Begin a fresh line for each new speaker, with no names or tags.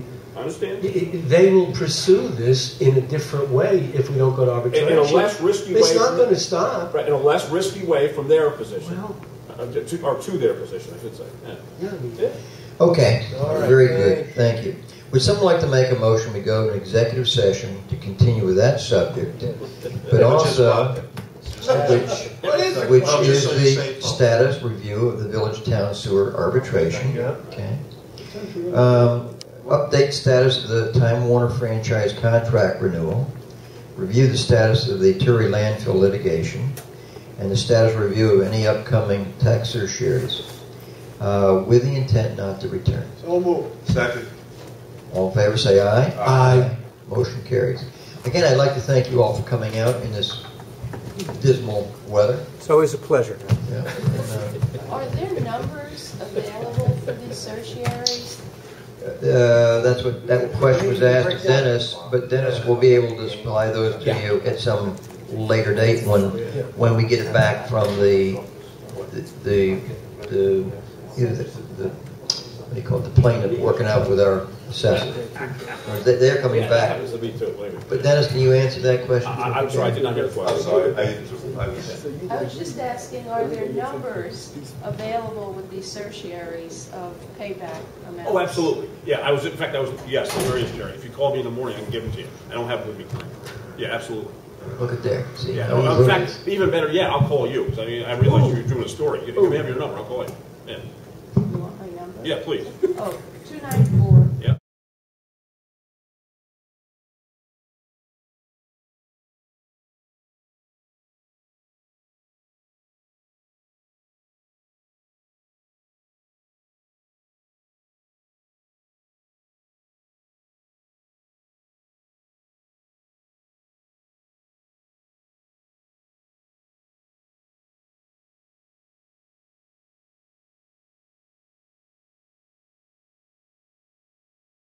I understand.
I- I- They will pursue this in a different way if we don't go to
In,
arbitration.
in a less risky way.
It's not
from-
going to stop.
Right, in a less risky way from their position.
Well-
Uh, to- Or to their position, I should say. Yeah.
Yeah, I mean,
Yeah.
Okay,
All right.
very good, thank you. Would someone like to make a motion, we go to an executive session to continue with that subject, but also, which,
What is it?
which
Well,
is
just so you
the
say-
status review of the village town sewer arbitration,
Yeah.
okay? Um, update status of the Time Warner franchise contract renewal, review the status of the Terry landfill litigation, and the status review of any upcoming tax surcharges, uh, with the intent not to return.
Second.
All in favor, say aye.
Aye.
Motion carries. Again, I'd like to thank you all for coming out in this dismal weather.
It's always a pleasure.
Yeah, and,
Are there numbers available for these certiaries?
uh, uh, That's what, that question was asked to Dennis, but Dennis will be able to supply those to you at some later date when, when we get it back from the, the, the, either the, the- what do you call it, the plaintiff working out with our assessor. Or they- They're coming
Yeah, that
back.
happens to be too, believe me.
But Dennis, can you answer that
I-
question?
I, I'm sorry, I did not hear the
I'm
question.
sorry, I, I was,
I was just asking, are there numbers available with these certiaries of payback amounts?
Oh, absolutely. Yeah, I was, in fact, I was, yes, there is, Jerry. If you call me in the morning, I can give them to you. I don't have it with me. Yeah, absolutely.
Look at there, see?
Yeah,
how we
well, in
look.
fact, even better, yeah, I'll call you, 'cause I mean, I realize you're doing a story. You you have your number, I'll call you. Yeah,
You want my number?
yeah, please.
Oh, 294